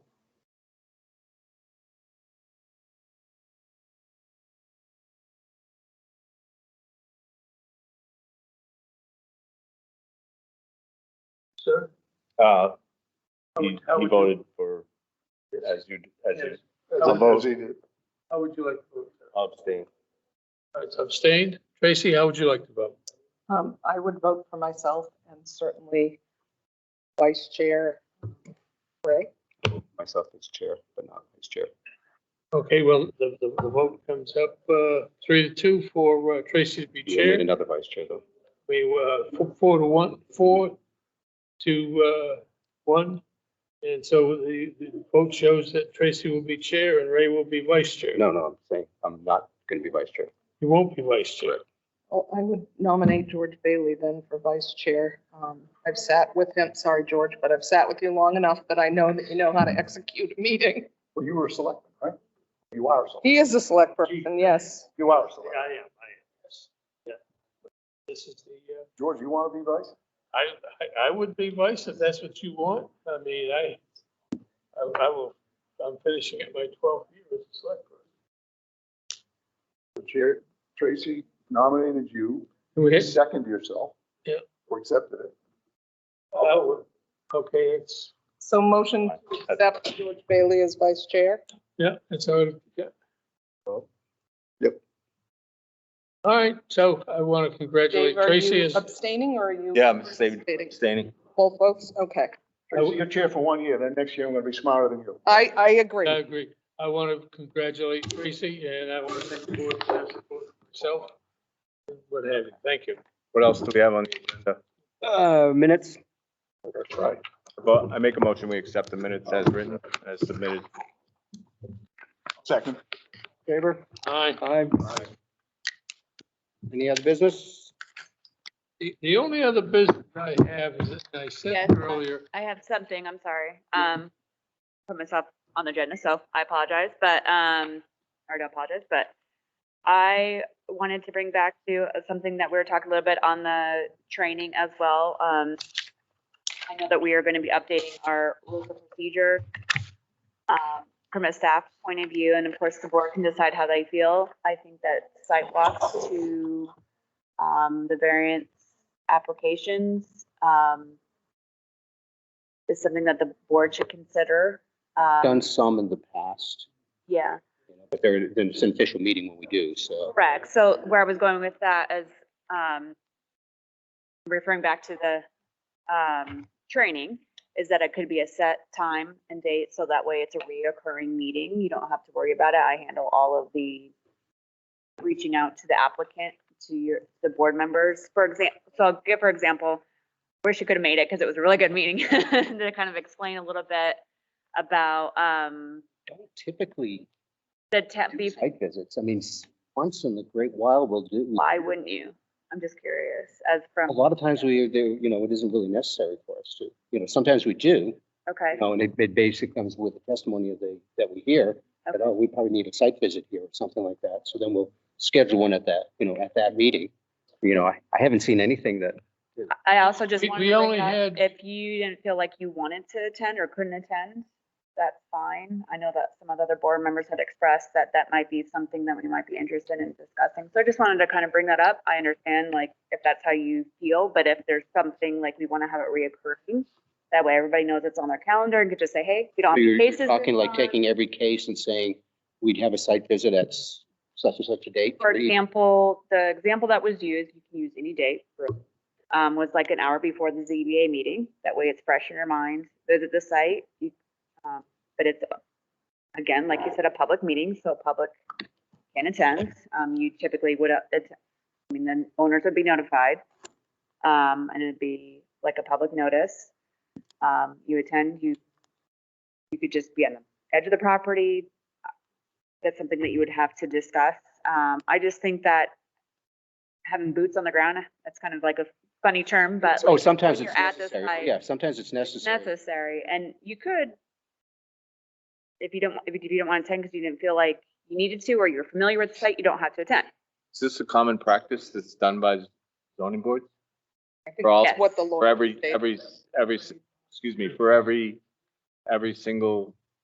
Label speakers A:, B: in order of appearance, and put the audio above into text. A: sir?
B: Uh,
A: How
B: he,
A: would- how would
B: he
A: you-
B: voted for, as you, as you
A: Yes.
C: a
A: How
C: vote.
A: would- how would you like to vote? sir?
B: abstained.
A: All right, so abstained. Tracy, how would you like to vote?
D: Um, I would vote for myself and certainly Vice Chair Ray.
C: myself as chair, but not vice chair.
A: Okay, well, the, the, the vote comes up, uh, three to two for uh, Tracy to be
C: You need
A: chair.
C: another vice chair though.
A: We, uh, four- four to one, four to, uh, one. And so the, the vote shows that Tracy will be chair and Ray will be vice chair.
C: No, no, I'm saying I'm not gonna be vice chair.
A: He won't be vice chair.
D: Oh, I would nominate George Bailey then for Vice Chair. Um, I've sat with him, sorry, George, but I've sat with you long enough that I know that you know how to execute a meeting.
E: Well, you were a selectman, right? You are a selectman.
D: He is a select person, yes.
E: You are a
A: Yeah,
E: selectman.
A: I am, I am, yes. Yeah. This is the, uh,
E: George, you want to be vice?
A: I, I, I would be vice if that's what you want. I mean, I, I, I will, I'm finishing at my twelfth year as a select. person.
E: The chair, Tracy nominated you,
A: Can we
E: you
A: hit,
E: seconded yourself.
A: Yeah.
E: Or accepted it.
A: oh, okay, it's,
D: So motion to accept George Bailey as Vice Chair.
A: yeah, it's all, yeah.
E: Yep.
A: All right, so I want to congratulate
D: Dave, are
A: Tracy
D: you
A: as,
D: abstaining or are you?
B: Yeah, I'm abstaining.
D: participating?
B: Abstaining.
D: Both votes, okay.
E: Tracy, you're chair for one year, then next year I'm going to be smarter than you.
D: I, I
A: I
B: Uh,
D: agree.
A: agree. I want to congratulate Tracy and I want to thank the board for their support myself. What have you. Thank you.
B: What else do we have on the agenda?
F: Uh, minutes.
C: That's right.
B: Well, I make a motion, we accept the minutes as written, as submitted.
E: Second.
F: Favor?
A: Aye.
F: Aye. Any other business?
A: The, the only other business I have is, that I
G: Yes.
A: said earlier,
G: I have something, I'm sorry. Um, put myself on the agenda, so I apologize, but, um, or don't apologize, but I wanted to bring back to uh, something that we were talking a little bit on the training as well. Um, I know that we are going to be updating our rules of procedure, um, from a staff point of view, and of course, the board can decide how they feel. I think that sidewalks to, um, the variance applications, um, is something that the board should consider. Um,
F: Done some in the past,
G: Yeah,
F: you know, but there, then it's an official meeting when we do, so.
G: correct. So where I was going with that is, um, referring back to the, um, training, is that it could be a set time and date, so that way it's a reoccurring meeting. You don't have to worry about it. I handle all of the reaching out to the applicant, to your, the board members. For example, so I'll give, for example, wish you could have made it because it was a really good meeting to kind of explain a little bit about, um,
F: Don't typically
G: the tech,
F: do site visits. I mean, s- once in the great while we'll do.
G: why wouldn't you? I'm just curious as from,
F: A lot of times we do, you know, it isn't really necessary for us to, you know, sometimes we do,
G: okay,
F: you know, and it, it basically comes with the testimony of the, that we hear. That,
G: Okay.
F: oh, we probably need a site visit here or something like that. So then we'll schedule one at that, you know, at that meeting. You know, I, I haven't seen anything that
G: I also just
A: We-
G: wanted
A: we
G: to
A: only
G: bring
A: had-
G: up, if you didn't feel like you wanted to attend or couldn't attend, that's fine. I know that some of the other board members had expressed that that might be something that we might be interested in discussing. So I just wanted to kind of bring that up. I understand like if that's how you feel, but if there's something like we want to have it reoccurring, that way everybody knows it's on their calendar and could just say, hey, we don't
F: So
G: have
F: You're
G: any
F: you're
G: cases. this
F: talking like
G: month."
F: taking every case and saying, we'd have a site visit at s- such and such a date.
G: For
F: three-
G: example, the example that was used, you can use any date, um, was like an hour before the ZBA meeting. That way it's fresh in your mind, visit the site. you- um, But it's, again, like you said, a public meeting, so public can attend. Um, you typically would, uh, att- I mean, then owners would be notified. Um, and it'd be like a public notice. Um, you attend, you, you could just be on the edge of the property, that's something that you would have to discuss. Um, I just think that having boots on the ground, that's kind of like a funny term, but
F: Oh,
G: like,
F: sometimes
G: when
F: it's
G: you're at the site,
F: necessary. Yeah, sometimes it's necessary.
G: necessary. And you could, if you don't, if you don't want to attend because you didn't feel like you needed to, or you're familiar with the site, you don't have to attend.
B: Is this a common practice that's done by zoning boards?
D: I think
B: For all-
D: that's what the law
B: For every,
D: stated.
B: every, every, excuse me, for every, every single